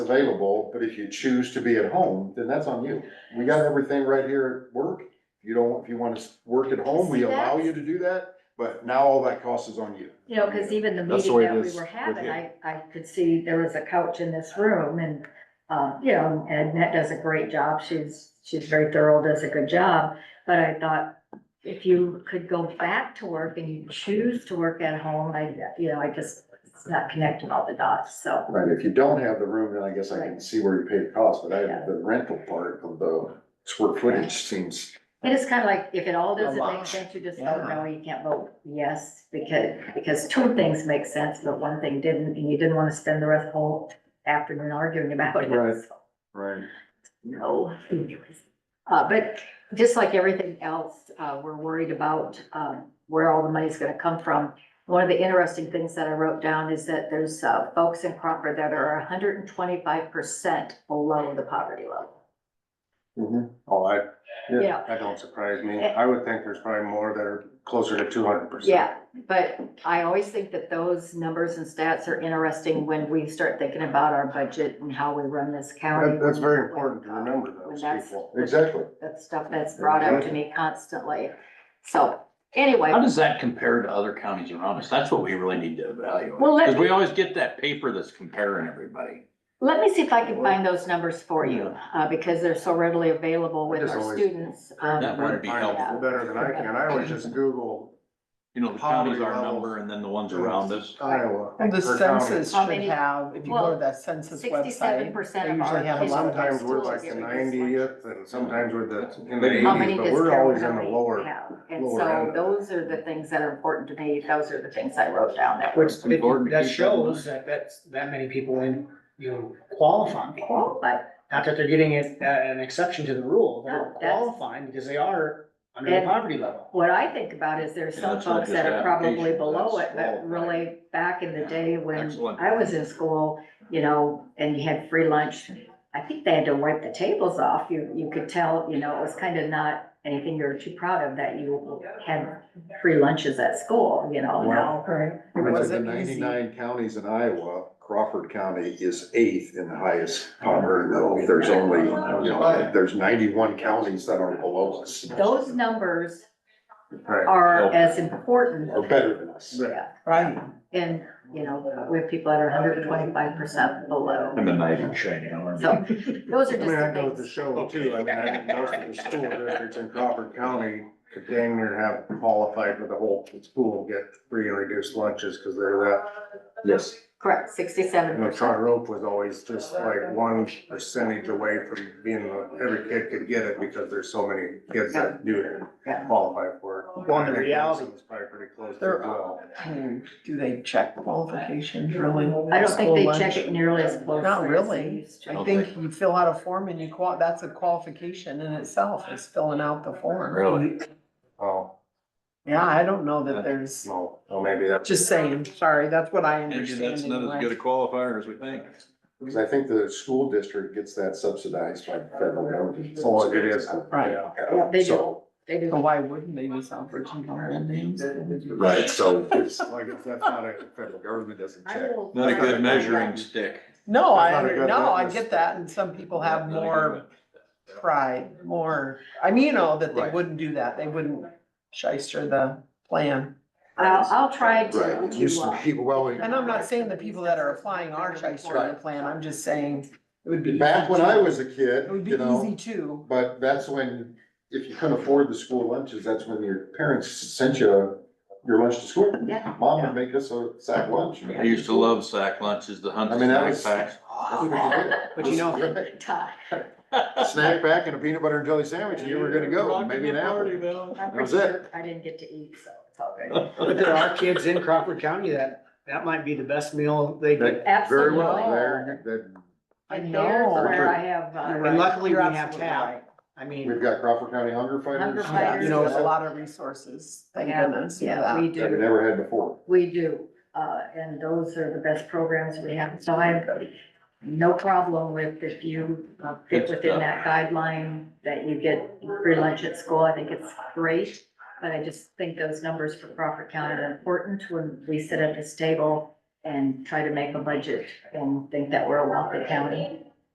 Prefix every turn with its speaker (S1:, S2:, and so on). S1: available, but if you choose to be at home, then that's on you. We got everything right here at work. If you don't, if you wanna s- work at home, we
S2: See,
S1: allow
S2: that's-
S1: you to do that, but now all that cost is on you.
S2: You know, cause even the
S1: That's the
S2: meeting
S1: way it
S2: that we
S1: is
S2: were
S1: with
S2: having,
S1: him.
S2: I, I could see there was a couch in this room and, um, you know, and Annette does a great job. She's, she's very thorough, does a good job. But I thought if you could go back to work and you choose to work at home, I, you know, I just, it's not connecting all the dots, so.
S1: Right, if you don't have the room, then I guess I can
S2: Right.
S1: see where you pay the cost, but I,
S2: Yeah.
S1: the rental part of the square footage seems,
S2: And it's kind of like, if it all doesn't
S1: A lot.
S2: make sense, you just don't know, you can't vote yes, because, because two things make sense, but one thing didn't, and you didn't want to spend the rest of the whole afternoon arguing about it.
S1: Right.
S2: so.
S1: right?
S2: No, anyways. Uh, but just like everything else, uh, we're worried about, um, where all the money's gonna come from. One of the interesting things that I wrote down is that there's, uh, folks in Crawford that are hundred and twenty-five percent below the poverty level.
S1: Mhm.
S3: Oh, I,
S2: Yeah. Eh.
S3: that don't surprise me. I would think there's probably more that are closer to two hundred percent.
S2: Yeah, but I always think that those numbers and stats are interesting when we start thinking about our budget and how we run this county.
S3: that's very important to remember those
S2: That's-
S3: people.
S1: Exactly.
S2: That stuff that's brought up to me constantly. So, anyway.
S4: How does that compare to other counties around us? That's what we really need to evaluate,
S2: Well, let
S4: because we always get that paper that's comparing everybody.
S2: Let me see if I can find those numbers for you, uh, because they're so readily available with
S3: It's
S2: our
S3: always-
S2: students.
S4: That
S2: Um,
S4: would
S3: Probably
S4: be
S3: find
S2: helpful.
S3: Better than I can. I always just Google
S4: You know, the counties our number and then the ones around us.
S3: Iowa.
S5: Well, the
S3: per county.
S5: census
S2: How
S5: should
S2: many-
S5: have, if you go to that census
S2: Sixty-seven
S5: website,
S2: percent
S5: they
S2: of our.
S5: usually have
S3: And
S5: a
S2: kids
S5: lot
S2: are
S5: of
S3: Sometimes we're
S2: schools
S3: like the
S2: here.
S3: ninetieth and sometimes we're the, in the
S2: How many
S3: eighties, but
S2: does
S3: we're always in
S2: Carroll
S3: the
S2: County
S3: lower.
S2: have? And
S3: lower
S2: so
S3: end.
S2: those are the things that are important to me. Those are the things I wrote down that were
S6: Which,
S4: Important to keep that
S6: that
S4: in
S6: shows that that's, that many people in, you know, qualifying.
S2: qualified.
S6: Not that they're getting it, uh, an exception to the rule,
S2: No,
S6: they're
S2: that's-
S6: qualifying because they are under the
S2: And-
S6: poverty level.
S2: What I think about is there's
S4: Yeah,
S2: some
S4: that's not
S2: folks
S4: just
S2: that are probably
S4: application,
S2: below
S4: that's
S2: it, but
S4: qualified.
S2: really back in the day when
S4: Excellent.
S2: I was in school, you know, and you had free lunch. I think they had to wipe the tables off. You, you could tell, you know, it was kind of not anything you were too proud of that you had free lunches at school, you know, now.
S5: right? It
S1: I took the
S5: wasn't easy.
S1: ninety-nine counties in Iowa, Crawford County is eighth in the highest poverty level. There's only, you know, there's ninety-one counties that are below us,
S2: Those numbers
S3: Right.
S2: are as important,
S1: or better than us.
S2: yeah.
S5: Right,
S2: And, you know, we have people that are hundred and twenty-five percent below.
S4: And the knight in shining armor.
S2: So those
S3: I
S2: are just
S3: mean, I go
S2: the
S3: with the
S2: things.
S3: show too. I mean, I think most of the school districts in Crawford County could dang near have qualified for the whole school, get free and reduced lunches because they're that
S4: Yes.
S2: Correct, sixty-seven
S3: You know,
S2: percent.
S3: Charter Oak was always just like one percentage away from being, the- every kid could get it because there's so many kids that do
S2: Yeah.
S3: it, qualify for it.
S6: Well, and the reality-
S3: It's Probably pretty close to
S5: There
S3: well.
S5: Hmm, do they check qualifications really?
S2: I don't think they
S5: School
S2: check it
S5: lunch?
S2: nearly as closely.
S5: Not
S2: as
S5: really.
S2: they used to.
S5: I think you fill out a form and you qual, that's a qualification in itself, is filling out the form.
S4: Really?
S3: Oh,
S5: Yeah, I don't know that there's,
S3: no, well, maybe that's.
S5: just saying, sorry, that's what I
S4: Maybe
S5: understand
S4: that's not as
S5: anyway.
S4: good a qualifier as we think.
S1: Cause I think the school district gets that subsidized by the federal government.
S3: Oh, it is.
S5: Right.
S3: Yeah.
S2: Yeah, they do.
S1: So,
S2: They do.
S5: So why wouldn't they use Alberton Hall names?
S1: right, so it's,
S3: Like, if that's not a, federal government doesn't
S2: I
S3: check.
S2: will-
S4: Not a good measuring stick.
S5: No, I,
S3: That's not a good
S5: no, I
S3: witness.
S5: get that, and some people have
S4: Not a good
S5: more
S4: one.
S5: pride more, I mean, you know, that they
S1: Right.
S5: wouldn't do that, they wouldn't shyster the plan.
S2: I'll, I'll try to.
S1: right, you
S2: to, uh,
S1: keep, well, we-
S5: And I'm not saying the people that are applying are shystering the plan, I'm just saying it would be.
S1: back when I
S5: easy
S1: was a
S5: to-
S1: kid,
S5: It would be
S1: you know.
S5: easy too,
S1: But that's when, if you couldn't afford the school lunches, that's when your parents sent you your lunch to school.
S2: Yeah.
S1: Mom would make us a sack lunch.
S4: I used to love sack lunches, the
S1: I
S4: hunting
S1: mean, that
S4: snack
S1: was-
S4: packs.
S1: But
S5: you know-
S2: Todd,
S1: Snack pack and a peanut butter and jelly sandwich and you were gonna go, maybe an apple.
S2: I'm
S1: That
S2: pretty
S1: was
S2: sure I didn't get to eat, so it's all good.
S6: But there are kids in Crawford County that, that might be the best meal they get.
S1: That- Very well,
S2: Absolutely.
S1: there, that,
S5: I
S2: And there's
S5: know.
S2: where I have,
S5: You're
S2: uh,
S6: And
S5: right.
S6: luckily, we
S5: You're
S6: have
S5: absolutely
S6: TAP.
S5: right.
S6: I mean,
S1: we've got Crawford County Hunger Fighters.
S2: Hunger
S5: yeah,
S2: Fighters.
S5: you know, there's a lot of resources, thank
S2: Yeah,
S5: goodness for
S2: yeah, we
S5: that.
S1: That we
S2: do,
S1: never had before.
S2: we do, uh, and those are the best programs we have, so I have no problem with if you uh, fit
S4: Good
S2: within
S4: stuff.
S2: that guideline, that you get free lunch at school, I think it's great. But I just think those numbers for Crawford County are important when we sit at this table and try to make a budget and think that we're a wealthy county.